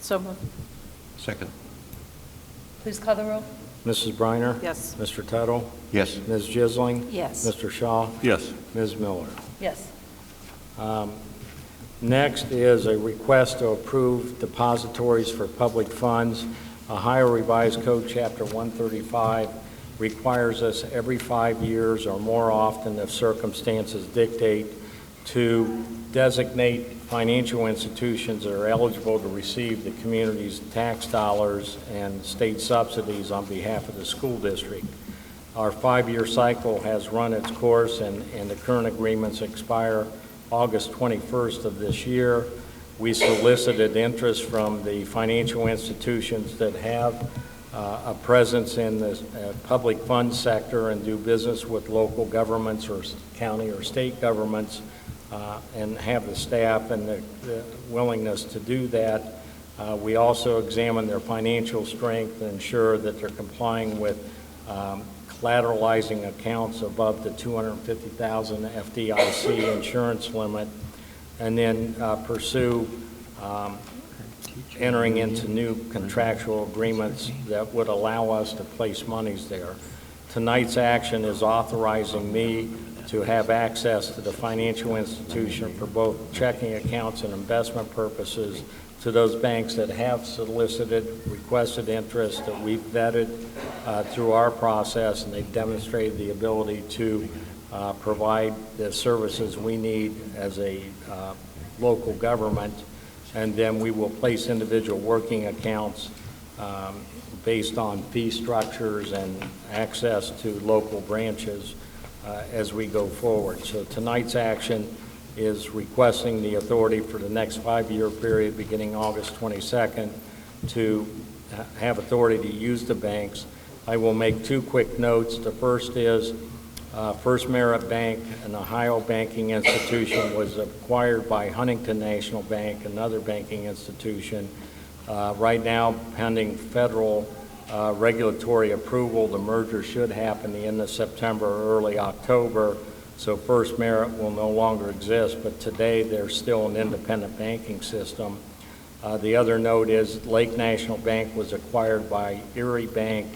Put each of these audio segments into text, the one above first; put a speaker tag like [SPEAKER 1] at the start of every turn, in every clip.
[SPEAKER 1] So moved.
[SPEAKER 2] Second.
[SPEAKER 3] Please call the roll.
[SPEAKER 4] Mrs. Briner?
[SPEAKER 1] Yes.
[SPEAKER 4] Mr. Tuttle?
[SPEAKER 2] Yes.
[SPEAKER 4] Ms. Jisling?
[SPEAKER 3] Yes.
[SPEAKER 4] Mr. Shaw?
[SPEAKER 2] Yes.
[SPEAKER 4] Ms. Miller?
[SPEAKER 3] Yes.
[SPEAKER 4] Um, Next is a request to approve depositories for public funds. Ohio Revised Code, Chapter 135, requires us every five years or more often if circumstances dictate to designate financial institutions that are eligible to receive the community's tax dollars and state subsidies on behalf of the school district. Our five-year cycle has run its course, and and the current agreements expire August 21st of this year. We solicited interest from the financial institutions that have uh, a presence in the uh, public fund sector and do business with local governments or s- county or state governments uh, and have the staff and the- the willingness to do that. Uh, We also examine their financial strength and ensure that they're complying with um, collateralizing accounts above the 250,000 FDIC insurance limit, and then uh, pursue um, entering into new contractual agreements that would allow us to place monies there. Tonight's action is authorizing me to have access to the financial institution for both checking accounts and investment purposes to those banks that have solicited, requested interest that we've vetted uh, through our process, and they've demonstrated the ability to uh, provide the services we need as a uh, local government. And then we will place individual working accounts um, based on fee structures and access to local branches uh, as we go forward. So tonight's action is requesting the authority for the next five-year period, beginning August 22nd, to ha- have authority to use the banks. I will make two quick notes. The first is, uh, First Merit Bank, an Ohio banking institution, was acquired by Huntington National Bank, another banking institution. Uh, Right now, pending federal uh, regulatory approval, the merger should happen the end of September, or early October, so First Merit will no longer exist, but today, they're still an independent banking system. Uh, The other note is Lake National Bank was acquired by Erie Bank.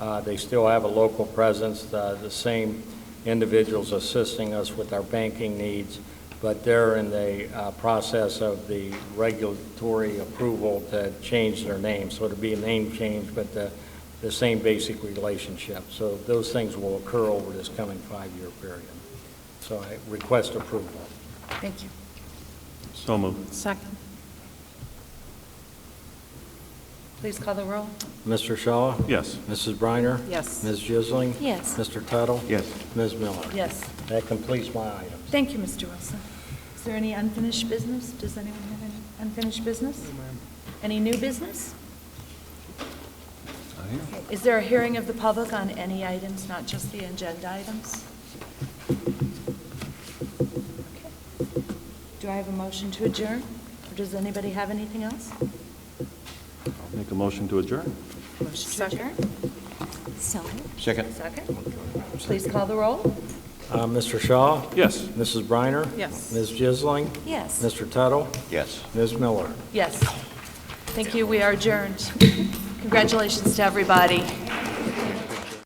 [SPEAKER 4] Uh, They still have a local presence, uh, the same individuals assisting us with our banking needs, but they're in the uh, process of the regulatory approval to change their name. So it'll be a name change, but the, the same basic relationship. So those things will occur over this coming five-year period. So I request approval.
[SPEAKER 3] Thank you.
[SPEAKER 2] So moved.
[SPEAKER 1] Second.
[SPEAKER 3] Please call the roll.
[SPEAKER 4] Mr. Shaw?
[SPEAKER 2] Yes.
[SPEAKER 4] Mrs. Briner?
[SPEAKER 1] Yes.
[SPEAKER 4] Ms. Jisling?
[SPEAKER 3] Yes.
[SPEAKER 4] Mr. Tuttle?
[SPEAKER 2] Yes.
[SPEAKER 4] Ms. Miller?
[SPEAKER 3] Yes.
[SPEAKER 4] That completes my items.
[SPEAKER 3] Thank you, Mr. Wilson. Is there any unfinished business? Does anyone have any unfinished business? Any new business? Is there a hearing of the public on any items, not just the agenda items? Okay. Do I have a motion to adjourn? Or does anybody have anything else?
[SPEAKER 2] I'll make a motion to adjourn.
[SPEAKER 3] Motion to adjourn?
[SPEAKER 5] So
[SPEAKER 2] Second.
[SPEAKER 3] Second? Please call the roll.
[SPEAKER 4] Uh, Mr. Shaw?
[SPEAKER 2] Yes.
[SPEAKER 4] Mrs. Briner?
[SPEAKER 1] Yes.
[SPEAKER 4] Ms. Jisling?
[SPEAKER 5] Yes.
[SPEAKER 4] Mr. Tuttle?
[SPEAKER 2] Yes.
[SPEAKER 4] Ms. Miller?
[SPEAKER 3] Yes. Thank you, we are adjourned. Congratulations to everybody.